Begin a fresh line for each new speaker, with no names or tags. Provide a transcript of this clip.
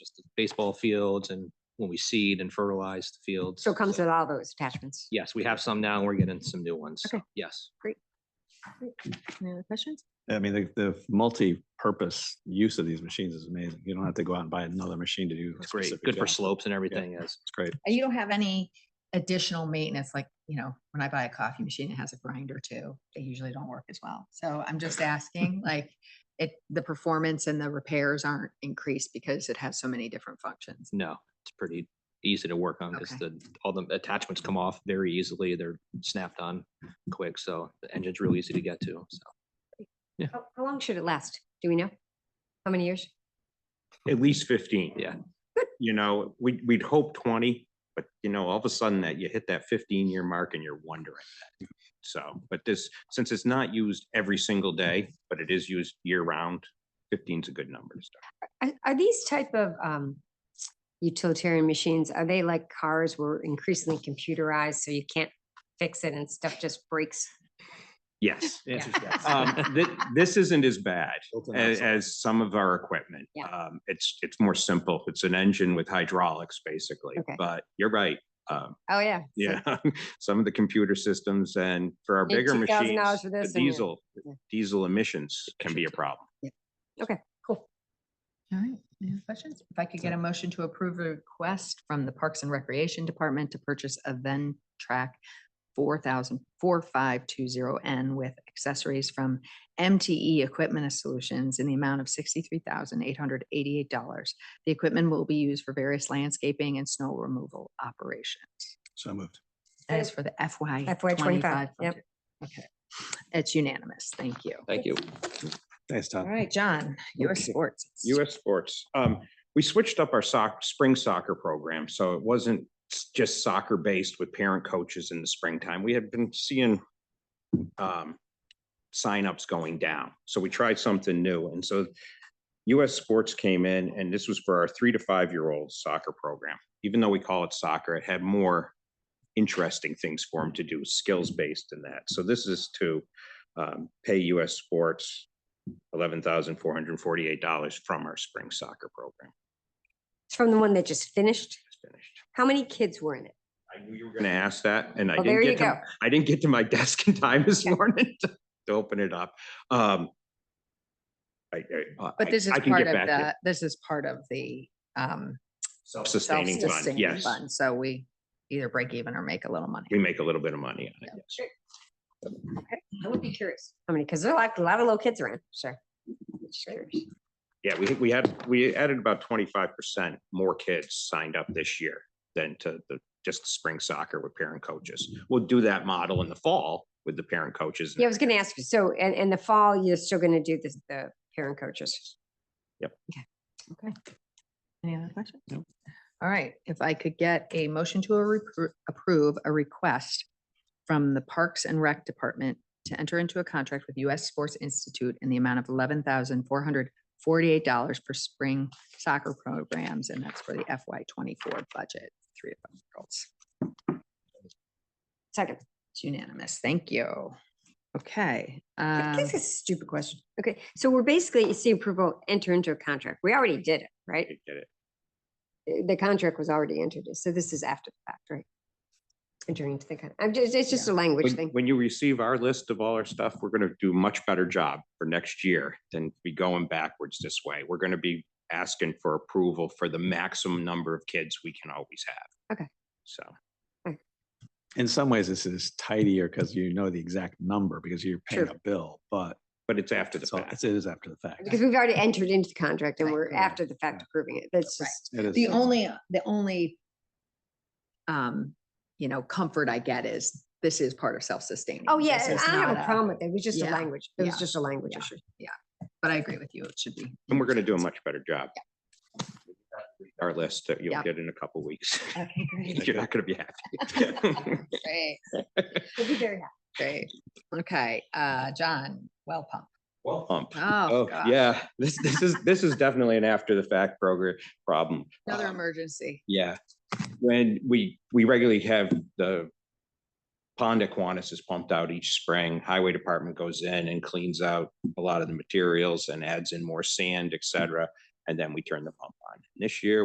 baseball fields and when we seed and fertilize the fields.
So it comes with all those attachments.
Yes, we have some now and we're getting some new ones. so
Okay.
Yes.
Any other questions?
I mean, the, the multi-purpose use of these machines is amazing. You don't have to go out and buy another machine to do. a
It's great.
specific
Good for
job.
slopes and everything, yes.
It's great.
And You don't have any additional maintenance, like, you know, when I buy a coffee machine, it has a grinder too. They usually don't work as well. So I'm just asking, like, it, the performance and the repairs aren't increased because it has so many different functions.
No, it's pretty easy to work on because
Okay.
the, all the attachments come off very easily. They're snapped on quick. So the engine's real easy to get to. So
How how long should it last? Do we know? How many years?
At least fifteen.
Yeah.
You know, we, we'd hope twenty, but you know, all of a sudden that you hit that fifteen year mark and you're wondering. that. So, but this, since it's not used every single day, but it is used year round, fifteen's a good number to start.
Are, are these type of um, utilitarian machines, are they like cars were increasingly computerized, so you can't fix it and stuff just breaks?
Yes.
the answer's yes.
Um, thi- this isn't as bad
Built-in
as,
outside.
as some of our equipment.
Yeah.
Um, it's, it's more simple. It's an engine with hydraulics, basically,
Okay.
but you're right. Um,
Oh, yeah. so-
Yeah, some of the computer systems and for our
Need
bigger
$2,000
machines,
for
the
this and your-
diesel,
yeah.
diesel emissions can be a problem.
All right, any other questions? If I could get a motion to approve a request from the Parks and Recreation Department to purchase a Ventrac track four thousand four five two zero N with accessories from MTE Equipment Solutions in the amount of sixty-three thousand eight hundred eighty-eight dollars. The equipment will be used for various landscaping and snow removal operations.
So moved.
That is for the FY
FY 25,
twenty-five.
yep.
budget. Okay, it's unanimous. Thank you.
Thank you.
Thanks,
All
Tom.
right, John, US
Okay.
Sports.
US sports. Um, we switched up our soc- spring soccer program, so it wasn't s- just soccer based with parent coaches in the springtime. We had been seeing um, signups going down. So we tried something new. And so US sports came in and this was for our three to five year old soccer program. Even though we call it soccer, it had more interesting things for them to do, skills based in that. So this is to um, pay US sports eleven thousand four hundred and forty-eight dollars from our spring soccer program.
It's from the one that just finished.
It's finished.
How many kids were in it?
I knew you were gonna ask that and I
Well, there
didn't
you
get
go.
to, I didn't get to my desk in time this
Okay.
morning to to open it up. Um. I, I. uh,
But
I-
this is
I can
part
get
of
back to
the, this is part of the um
Self-sustaining fund,
self-sustaining
yes.
fund, So we either break even or make a little money.
We make a little bit of money on it, yes.
I would be curious. How many? Because there are like a lot of little kids around, sure. Just curious.
Yeah, we, we had, we added about twenty-five percent more kids signed up this year than to the, just spring soccer with parent coaches. We'll do that model in the fall with the parent coaches. and
Yeah, I was gonna ask you, so, and, in the fall, you're still gonna do this, the parent coaches?
Okay. Any other questions? All right, if I could get a motion to a repro- approve a request from the Parks and Rec Department to enter into a contract with US Sports Institute in the amount of eleven thousand four hundred forty-eight dollars for spring soccer programs, and that's for the FY twenty-four budget, three of them girls.
Second,
It's unanimous. Thank you. Okay.
Can-
um,
this is a stupid question. Okay, so we're basically, you see approval, enter into a contract. We already did it, right?
they did it.
Uh, The contract was already entered, in, so this is after the fact, right? Entering into the, con- I'm just, it's just a language
When-
thing.
When you receive our list of all our stuff, we're gonna do a much better job for next year than be going backwards this way. We're gonna be asking for approval for the maximum number of kids we can always have.
Okay.
So.
In some ways, this is tidier because you know the exact number because you're paying
True.
a bill, but
But it's after the
it's all-
fact.
it's- It is after the fact.
Because we've already entered into the contract and
Right,
we're
correct,
after the fact approving it. That's
Right.
just,
It is-
The only, the only um, you know, comfort I get is this is part of self-sustaining.
oh yeah,
This
and
is
I don't have
not
a problem with it. It was just a
yeah,
language. It was
yeah,
just a language
yeah.
issue.
But I agree with you, it should be.
And we're gonna do a much better job. Our list that you'll
Yeah.
get in a couple weeks.
Okay, great.
You're not gonna be happy.
Great,
We'll be very happy.
great. Okay, uh, John, well pump.
Well, hump.
Oh,
Oh,
gosh.
yeah, this, this is, this is definitely an after the fact program, problem.
Another
Um,
emergency.
Yeah, when we, we regularly have the pond Aquinas is pumped out each spring. Highway Department goes in and cleans out a lot of the materials and adds in more sand, et cetera. And then we turn the pump on. This year,